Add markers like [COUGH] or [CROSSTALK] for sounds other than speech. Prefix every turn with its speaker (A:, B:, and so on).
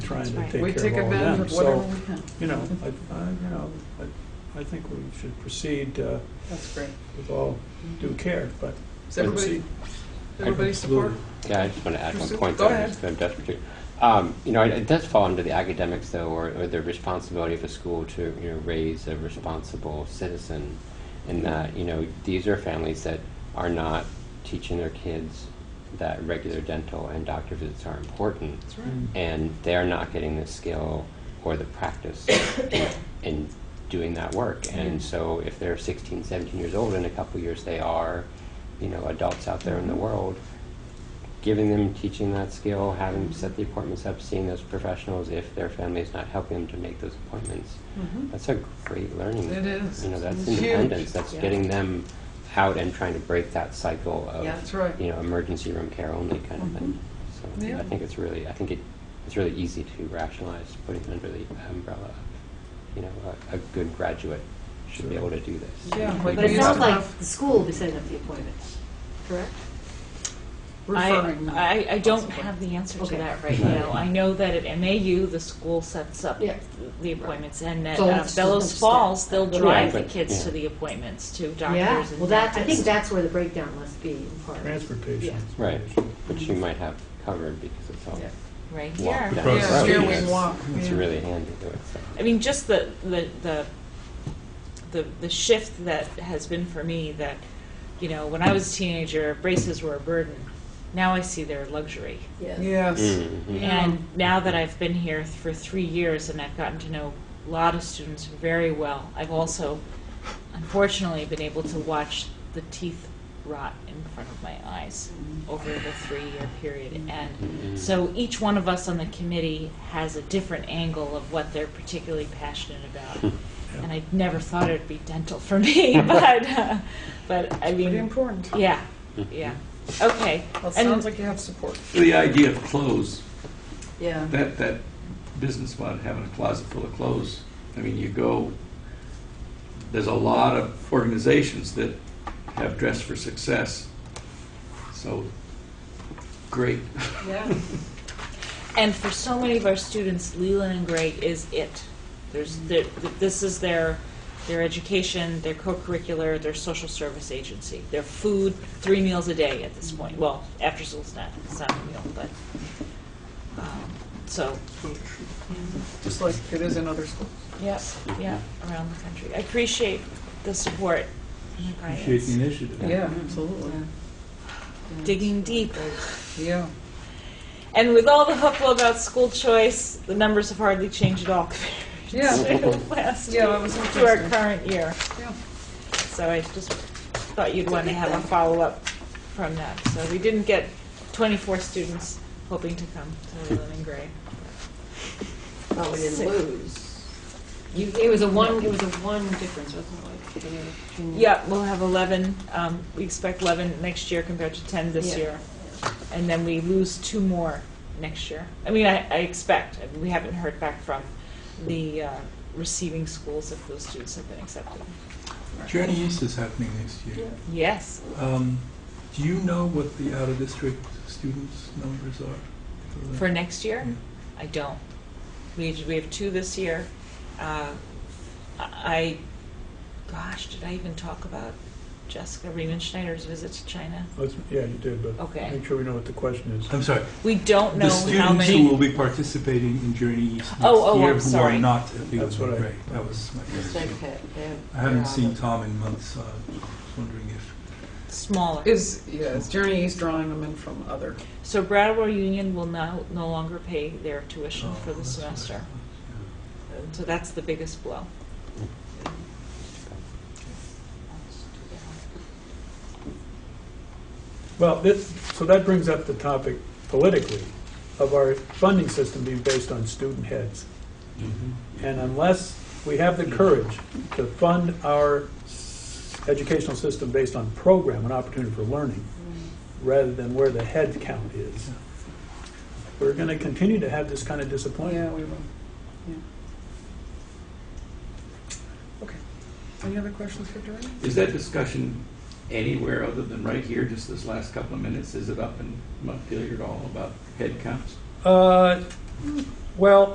A: trying to
B: Right.
A: take
C: We
A: care
C: take
A: of all of
C: advantage
A: them.
C: of whatever
A: So,
C: we can.
A: you know, I, I, you know, I, I think we should proceed uh,
C: That's great.
A: with all due care, but let's
C: Does everybody,
A: see.
C: everybody support?
D: Yeah, I just want to add one
C: Proceed.
D: point
C: Go
D: that I'm
C: ahead.
D: just- I'm desperate to. Um, you know, it, it does fall under the academics though, or, or the responsibility of a school to you know raise a responsible citizen, in that you know these are families that are not teaching their kids that regular dental and doctor visits are important,
C: That's right.
A: Mm.
D: and they're not getting the skill or the practice [COUGHS] in, in doing that work. And
C: Yeah.
D: so if they're 16, 17 years old, in a couple years they are, you know, adults out there in the world, giving them, teaching that skill, having them set the appointments up, seeing those professionals if their family is not helping them to make those appointments.
C: Mhm.
D: That's a great learning.
C: It is.
D: You know, that's
C: Huge.
D: independence. That's
B: Yeah.
D: getting them out and trying to break that cycle of
B: Yeah.
C: That's right.
D: you know, emergency room care only kind of thing. So
C: Yeah.
D: I think it's really, I think it, it's really easy to rationalize putting it under the umbrella of, you know, a, a good graduate should be
A: Sure.
D: able to do this.
C: Yeah,
D: We
C: but
B: But it
D: do
C: it's
B: sounds
D: that.
B: like the school will be setting up the appointments, correct?
E: I,
C: Referring.
E: I, I don't
C: possibly.
E: have the answer to
B: Okay.
E: that right
D: Right.
E: now. I know that at MAU, the school sets up
B: Yeah.
E: the appointments, and at
B: So
E: uh,
B: it's-
E: Bellows
B: it's-
E: Falls, they'll
B: Yeah,
E: drive the
D: but-
E: kids
D: yeah.
E: to the appointments, to
B: Yeah,
E: doctors
B: well,
E: and
B: that, I think
E: dentists.
B: that's where the breakdown must be in part.
A: Transportation. is
D: Right,
A: an issue.
D: which you might have covered because it's all
C: Yeah.
E: Right
D: walk
E: here.
D: down
A: Across the
D: the
C: Yeah,
D: road.
C: here
A: street.
C: we
D: It's-
C: walk.
D: It's
C: yeah.
D: really handy to it. so.
E: I mean, just the, the, the, the, the shift that has been for me that, you know, when I was a teenager, braces were a burden. Now I see they're a luxury.
C: Yes.
E: [LAUGHS]
D: Mhm.
C: Yeah.
E: And now that I've been here for three years and I've gotten to know a lot of students very well, I've also unfortunately been able to watch the teeth rot in front of my eyes
D: Mm.
E: over the three year period. And
D: Mm-hmm.
E: so each one of us on the committee has a different angle of what they're particularly passionate
C: [LAUGHS]
E: about. And I never thought it'd be dental for me, [LAUGHS] but, uh, but I
C: Pretty
E: mean,
C: important.
E: yeah, yeah. Okay.
C: Well,
E: And-
C: sounds like you have support.
F: The idea of clothes,
B: Yeah.
F: that, that business about having a closet full of clothes, I mean, you go, there's a lot of organizations that have dressed for success. So, great.
C: Yeah.
E: And for so many of our students, Leland and Gray is it. There's, there- th- this is their, their education, their co-curricular, their social service agency, their food, three meals a day at this point. Well, after school's not, it's not a meal, but, um, so,
C: Just like it is in other schools.
E: yep, yeah, around the country. I appreciate the support and the
A: Appreciate the
E: guidance.
A: initiative.
C: Yeah,
E: Mm-hmm.
C: absolutely.
E: Digging deep.
C: Yeah.
E: And with all the hoopla about school choice, the numbers have hardly changed at all
C: Yeah.
E: compared to last
C: Yeah,
E: year,
C: that was
E: to our
C: interesting.
E: current year.
C: Yeah.
E: So I just thought you'd want to have a follow-up from that. So we didn't get 24 students hoping to come to Leland and Gray.
B: Well, we didn't
E: Sick.
B: lose. You, it was a one, it was a one difference, wasn't it? like, in the- between-
E: Yeah, we'll have 11, um, we expect 11 next year compared to 10 this
B: Yeah.
E: year. And then we lose two more next year. I mean, I, I expect, I mean, we haven't heard back from the uh, receiving schools if those students have been accepted.
G: Journey East is happening next year.
E: Yes,
G: Um, do you know what the out-of-district students' numbers are? the-
E: for next year?
G: Yeah.
E: I don't. We have, we have two this year. Uh, I, gosh, did I even talk about Jessica Riemann Schneider's visit to China?
A: Let's, yeah, you did, but
E: Okay.
A: make sure we know what the question is.
G: I'm sorry,
E: We don't know
G: the
E: how
G: students who will
E: many.
G: be participating in Journey East next
E: Oh, oh, I'm
G: year who
E: sorry.
G: are not at the
A: That's what I-
G: Right, that was my
B: It's
G: question.
B: like, uh, they-
G: I haven't
B: they're
G: seen
B: on
G: Tom in months, so I was wondering if
E: Smaller.
C: Is, yeah, is Journey East drawing them in from other?
E: So Brattleboro Union will now, no longer pay their
G: uh,
E: tuition
G: Oh,
E: for the semester. And So that's the biggest blow.
A: Well, this, so that brings up the topic politically of our funding system being based on student heads.
F: Mm-hmm.
A: And unless we have the courage to fund our s- educational system based on program and opportunity for learning, rather than where the head count is, we're going to continue to have this kind of
C: Yeah,
A: disappointment.
C: we will. Yeah. Okay. Any other questions for Journey?
F: Is that discussion anywhere other than right here, just this last couple of minutes? Is it up in Montpelier at all about head counts?
A: Uh,
G: Well,